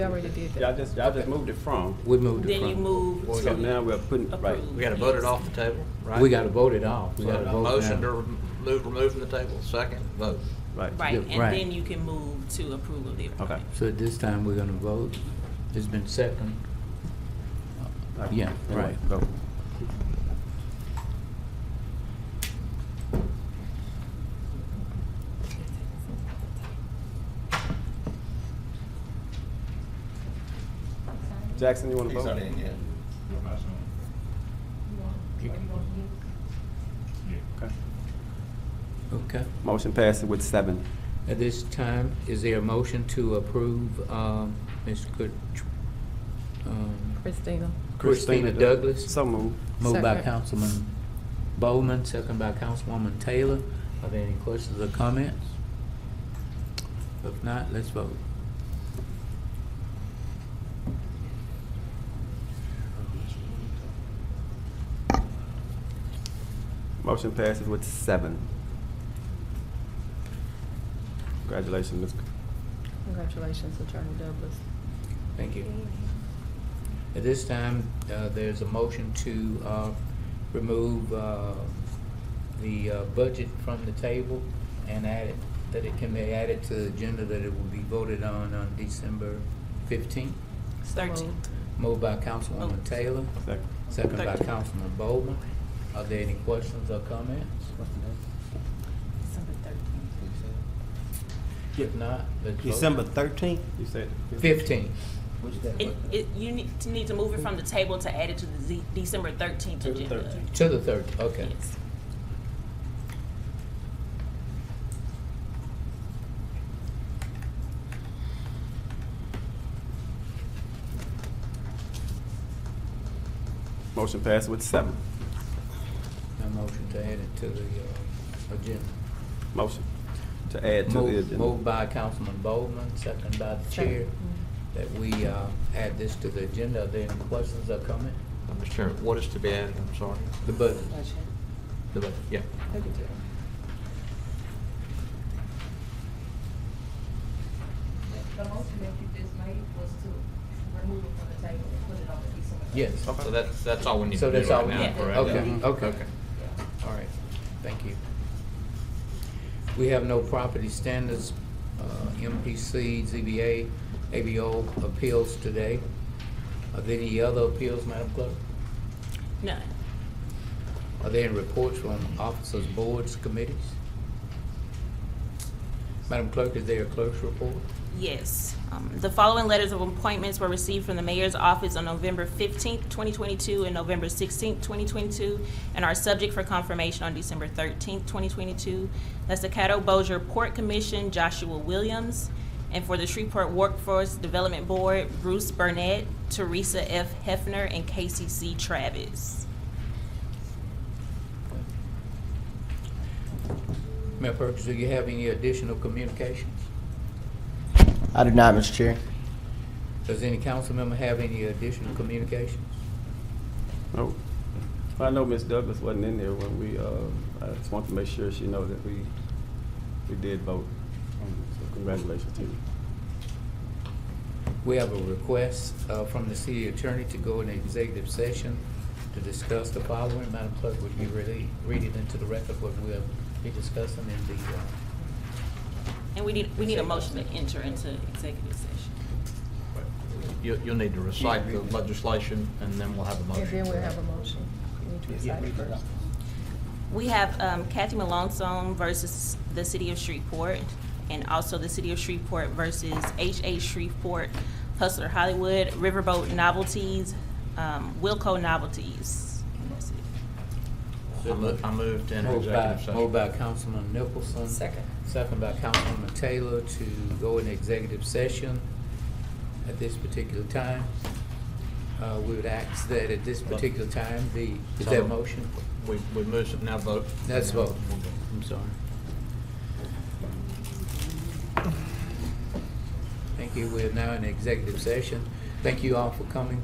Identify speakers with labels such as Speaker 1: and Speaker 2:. Speaker 1: We already did that.
Speaker 2: Y'all just, y'all just moved it from.
Speaker 3: We moved it
Speaker 4: Then you
Speaker 3: from.
Speaker 4: move
Speaker 5: Well,
Speaker 2: So
Speaker 4: to
Speaker 2: now we're putting, right.
Speaker 4: approve.
Speaker 5: We gotta vote it off the table, right?
Speaker 3: We gotta vote it off. We
Speaker 5: So
Speaker 3: gotta
Speaker 5: a
Speaker 3: vote
Speaker 5: motion to
Speaker 3: now.
Speaker 5: remove, remove from the table, second, vote.
Speaker 2: Right.
Speaker 4: Right,
Speaker 3: Yeah,
Speaker 4: and
Speaker 3: right.
Speaker 4: then you can move to approval of the appointment.
Speaker 3: So at this time, we're gonna vote. It's been second. Yeah, right.
Speaker 2: Go. Jackson, you wanna vote? Okay.
Speaker 3: Okay.
Speaker 2: Motion passes with seven.
Speaker 3: At this time, is there a motion to approve, um, Ms. Kut- um,
Speaker 1: Christina.
Speaker 3: Christina Douglas?
Speaker 2: So moved.
Speaker 3: Moved by
Speaker 1: Second.
Speaker 3: Councilman Bowman, second by Councilwoman Taylor. Are there any questions or comments? If not, let's vote.
Speaker 2: Motion passes with seven. Congratulations, Ms.
Speaker 1: Congratulations, Attorney Douglas.
Speaker 3: Thank you. At this time, uh, there's a motion to uh, remove uh, the uh, budget from the table and add it, that it can be added to the agenda, that it will be voted on on December 15th.
Speaker 4: It's thirteen.
Speaker 3: Moved by Councilwoman Taylor,
Speaker 2: Second.
Speaker 3: second by
Speaker 4: Thirteen.
Speaker 3: Councilman Bowman. Are there any questions or comments?
Speaker 4: December thirteenth.
Speaker 3: If not, let's vote.
Speaker 6: December thirteenth?
Speaker 2: You said?
Speaker 3: 15th.
Speaker 4: It, it, you need to need to move it from the table to add it to the Z- December thirteenth
Speaker 2: To the
Speaker 4: agenda.
Speaker 2: 13th.
Speaker 3: to the 30th, okay.
Speaker 4: Yes.
Speaker 2: Motion passes with seven.
Speaker 3: A motion to add it to the uh, agenda.
Speaker 2: Motion to add to the
Speaker 3: Moved
Speaker 2: agenda.
Speaker 3: moved by Councilman Bowman, second by the chair, that we uh, add this to the agenda. Are there any questions or comment?
Speaker 5: Mr. Chairman, what is to be added, I'm sorry?
Speaker 3: The budget.
Speaker 1: Mm-hmm.
Speaker 5: The vote, yeah.
Speaker 7: The motion that you just made was to remove it from the table and put it on the December.
Speaker 3: Yes.
Speaker 5: So that's, that's all we need
Speaker 3: So
Speaker 5: to do
Speaker 3: that's all
Speaker 5: right
Speaker 3: we
Speaker 5: now,
Speaker 4: need.
Speaker 5: correct?
Speaker 3: Okay, okay.
Speaker 5: Okay.
Speaker 3: All right, thank you. We have no property standards, uh, MPC, ZBA, ABO appeals today. Are there any other appeals, Madam Clerk?
Speaker 4: None.
Speaker 3: Are there any reports from officers, boards, committees? Madam Clerk, is there a clerk's report?
Speaker 4: Yes. Um, The following letters of appointments were received from the mayor's office on November fifteenth, twenty twenty-two, and November sixteenth, twenty twenty-two, and are subject for confirmation on December thirteenth, twenty twenty-two. That's the Caddo Bossier Port Commission, Joshua Williams, and for the Shreveport Workforce Development Board, Bruce Burnett, Teresa F. Hefner, and Casey C. Travis.
Speaker 3: Mayor Perkins, do you have any additional communications?
Speaker 6: I do not, Mr. Chair.
Speaker 3: Does any council member have any additional communications?
Speaker 2: Oh, I know Ms. Douglas wasn't in there when we, uh, I just want to make sure she knows that we, we did vote. Um, So Congratulations to you.
Speaker 3: We have a request uh, from the city attorney to go into executive session to discuss the following. Madam Clerk, would you really read it into the record what we'll be discussing in the, uh,
Speaker 4: And we need, we need a motion to enter into executive session.
Speaker 5: You, you'll need to recite the legislation, and then we'll have a motion.
Speaker 1: And then we'll have a motion. We need to recite it first.
Speaker 4: We have um, Kathy Malonzone versus the City of Shreveport, and also the City of Shreveport versus H.A. Shreveport, Hustler Hollywood, Riverboat Novelties, um, Wilco Novelties. And that's it.
Speaker 5: I mo- I moved in
Speaker 3: moved
Speaker 5: executive
Speaker 3: by,
Speaker 5: session.
Speaker 3: moved by Councilman Nicholson?
Speaker 1: Second.
Speaker 3: Second by Councilwoman Taylor to go in executive session at this particular time. Uh, We would ask that at this particular time, the, is there a motion?
Speaker 5: We, we moved, it. now vote.
Speaker 3: Let's vote. I'm sorry. Thank you. We're now in executive session. Thank you all for coming